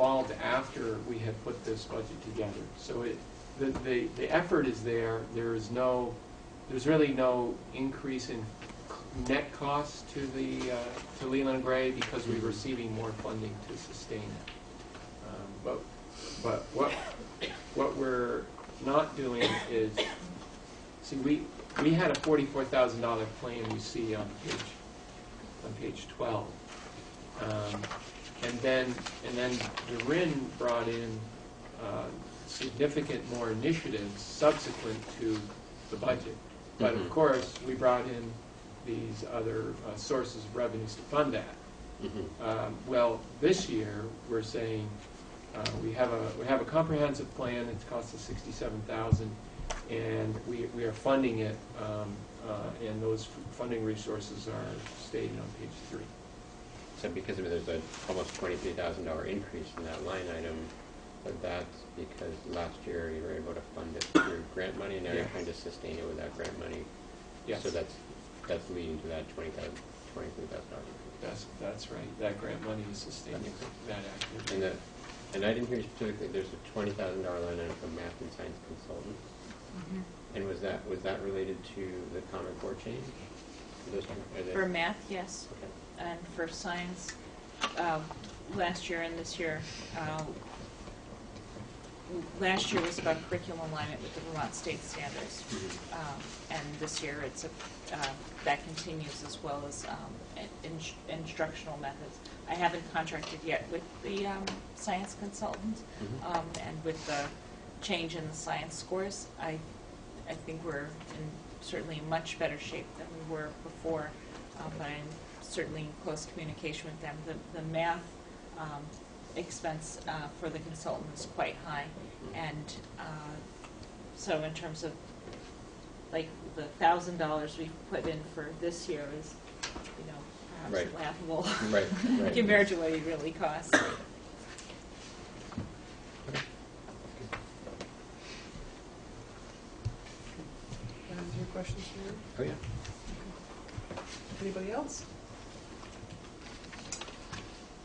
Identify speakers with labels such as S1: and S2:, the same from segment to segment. S1: evolved after we had put this budget together. So it, the, the, the effort is there, there is no, there's really no increase in c- net cost to the, uh, to Leland Gray because we're receiving more funding to sustain it. Um, But, but what, what we're not doing is, see, we, we had a forty-four thousand dollar claim you see on page, on page twelve. Um, And then, and then the RIN brought in uh, significant more initiatives subsequent to the budget. But of
S2: Mhm.
S1: course, we brought in these other uh, sources of revenues to fund that.
S2: Mhm.
S1: Um, Well, this year, we're saying, uh, we have a, we have a comprehensive plan, it's cost us sixty-seven thousand, and we, we are funding it, um, uh, and those f- funding resources are stated on page three.
S2: So because of, there's a almost twenty-three thousand dollar increase in that line item, but that's because last year you were able to fund it through grant money, now you're
S1: Yes.
S2: trying to sustain it without grant money.
S1: Yes,
S2: So that's, that's leading to that twenty thousand, twenty-three thousand dollar increase.
S1: that's, that's right, that grant money is sustaining that activity.
S2: And that, and I didn't hear specifically, there's a twenty thousand dollar line item for math and science consultants, and was that, was that related to the Common Core change? Those two- are they-
S3: For math, yes,
S2: Okay.
S3: and for science, um, last year and this year, um, last year was about curriculum alignment with the Vermont state standards.
S2: Mhm.
S3: Um, And this year, it's, a- um, that continues as well as um, in- in- instructional methods. I haven't contracted yet with the um, science consultant,
S2: Mhm.
S3: um, and with the change in the science scores, I, I think we're in certainly much better shape than we were before, um, but I'm certainly in close communication with them. The, the math um, expense uh, for the consultant is quite high, and uh, so in terms of, like, the thousand dollars we've put in for this year is, you know, perhaps
S2: Right.
S3: laughable
S2: Right, right.
S3: compared to what it really costs.
S4: That was your questions for me?
S2: Oh, yeah.
S4: Anybody else?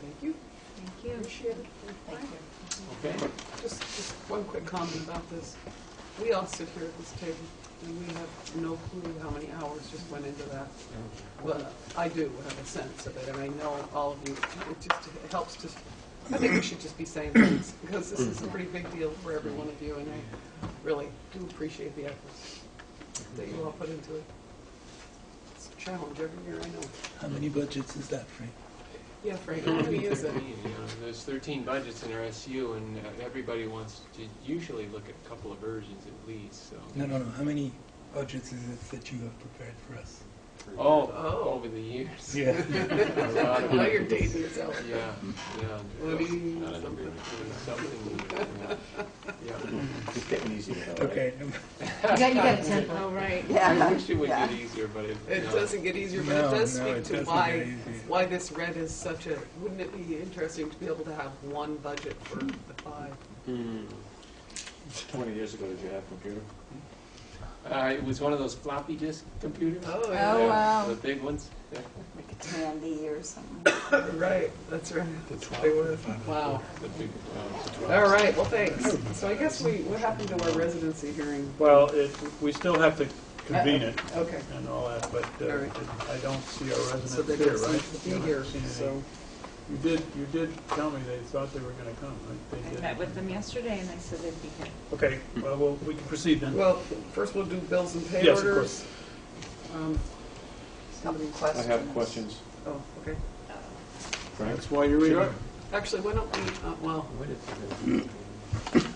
S4: Thank you.
S5: Thank you.
S4: Appreciate it.
S5: Thank you.
S1: Okay,
S4: Just, just one quick comment about this. We all sit here at this table, and we have no clue how many hours just went into that. Well, I do have a sense of it, and I know all of you, it just it helps to, I think we should just be saying things, because this is a pretty big deal for every one of you, and I really do appreciate the efforts that you all put into it. It's a challenge every year, I know.
S6: How many budgets is that, Frank?
S4: Yeah, Frank, how many is it?
S1: Thirteen, you know, there's thirteen budgets in our SU, and uh, everybody wants to usually look at a couple of versions at least, so.
S6: No, no, no. How many budgets is it that you have prepared for us?
S1: Oh,
S4: Oh.
S1: over the years.
S6: Yeah.
S4: Now you're dating yourself.
S1: Yeah, yeah.
S4: What do you
S2: Not
S4: mean?
S2: an agreement.
S1: It was something, yeah.
S2: It's getting easier. though, right?
S6: Okay. no-
S5: You got, you got a template.
S3: Oh, right.
S1: I wish it would get easier, but it.
S4: It
S1: no.
S4: doesn't get easier, but it
S6: No,
S4: does
S6: no,
S4: speak
S6: it
S4: to
S6: doesn't
S4: why,
S6: get easier.
S4: why this red is such a, wouldn't it be interesting to be able to have one budget for the five?
S2: Hmm.
S7: 20 years ago, did you have a computer?
S1: Uh, it was one of those floppy disk computers.
S4: Oh,
S5: Oh,
S1: Yeah,
S4: yeah,
S5: wow.
S1: The big ones. Yeah.
S5: Like a tandy or something.
S4: right, that's right. They were, wow.
S1: The big, uh,
S4: All right, well, thanks. So I guess we, what happened to our residency hearing?
S7: Well, it, we still have to convene it
S4: Okay,
S7: and all that, but uh,
S4: All right.
S7: I don't see our
S4: so
S7: residents
S4: they
S7: here,
S4: don't
S7: right?
S4: seem to
S7: You
S4: be
S7: haven't
S4: here,
S7: seen any.
S4: so.
S7: You did, you did tell me they thought they were going to come, right? They
S3: I
S7: did.
S3: met with them yesterday and they said they'd be here.
S7: Okay, well, we'll- we can proceed then.
S4: Well, first we'll do bills and pay
S7: Yes, of
S4: orders. Um, Somebody
S7: I
S4: question?
S7: have questions.
S4: Oh, okay.
S3: uh,
S7: That's why you're here.
S4: Actually, why don't we, uh, well,
S2: What is it?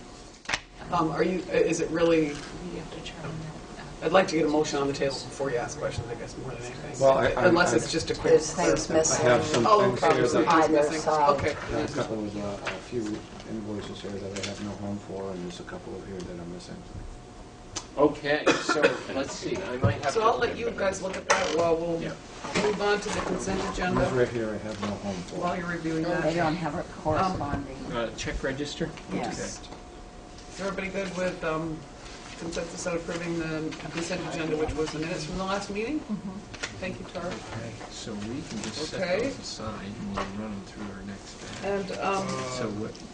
S4: um, are you, is it really
S3: We have to determine that. uh,
S4: I'd like to get a motion on the table before you ask questions, I guess, more than anything.
S8: Well, I- I-
S4: Unless it's just a quick.
S5: There's things
S8: I
S5: missing.
S8: have some
S4: Oh,
S8: things here
S4: okay.
S8: that,
S5: Either
S4: Missing.
S5: side.
S4: Okay.
S8: a couple of, uh, a few invoices here that I have no home for, and there's a couple of here that I'm missing.
S1: Okay, so let's see. I might have
S4: So
S1: to.
S4: I'll let you guys look at that while we'll
S1: Yeah.
S4: move on to the consent
S8: These
S4: agenda
S8: right here I have no home for.
S4: while you're reviewing
S5: No, They
S4: that.
S5: don't have a corresponding,
S1: Uh, check register.
S5: yes.
S4: Is everybody good with um, consensus on approving the consent agenda, which was the minutes from the last meeting?
S5: Mm-hmm.
S4: Thank you, Tara.
S9: Okay, so we can just set
S4: Okay.
S9: those aside and we'll run them through our next batch.
S4: And um,
S9: So what,